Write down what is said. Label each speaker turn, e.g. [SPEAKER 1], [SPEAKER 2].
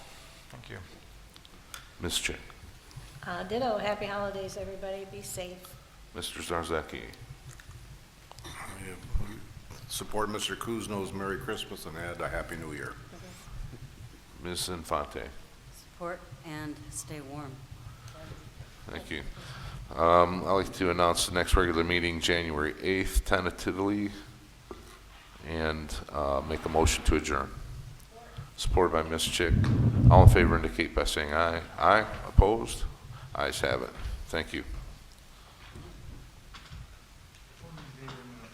[SPEAKER 1] you.
[SPEAKER 2] Ms. Chick,
[SPEAKER 3] Uh, Ditto, happy holidays, everybody, be safe.
[SPEAKER 2] Mr. Zarzaki,
[SPEAKER 4] Support Mr. Kuzno's Merry Christmas and add a Happy New Year.
[SPEAKER 2] Ms. Infante.
[SPEAKER 5] Support and stay warm.
[SPEAKER 2] Thank you. Um, I'd like to announce the next regular meeting, January 8th, tentatively, and uh, make a motion to adjourn. Supported by Ms. Chick. All in favor indicate by saying aye. Aye, opposed? Ayes have it. Thank you.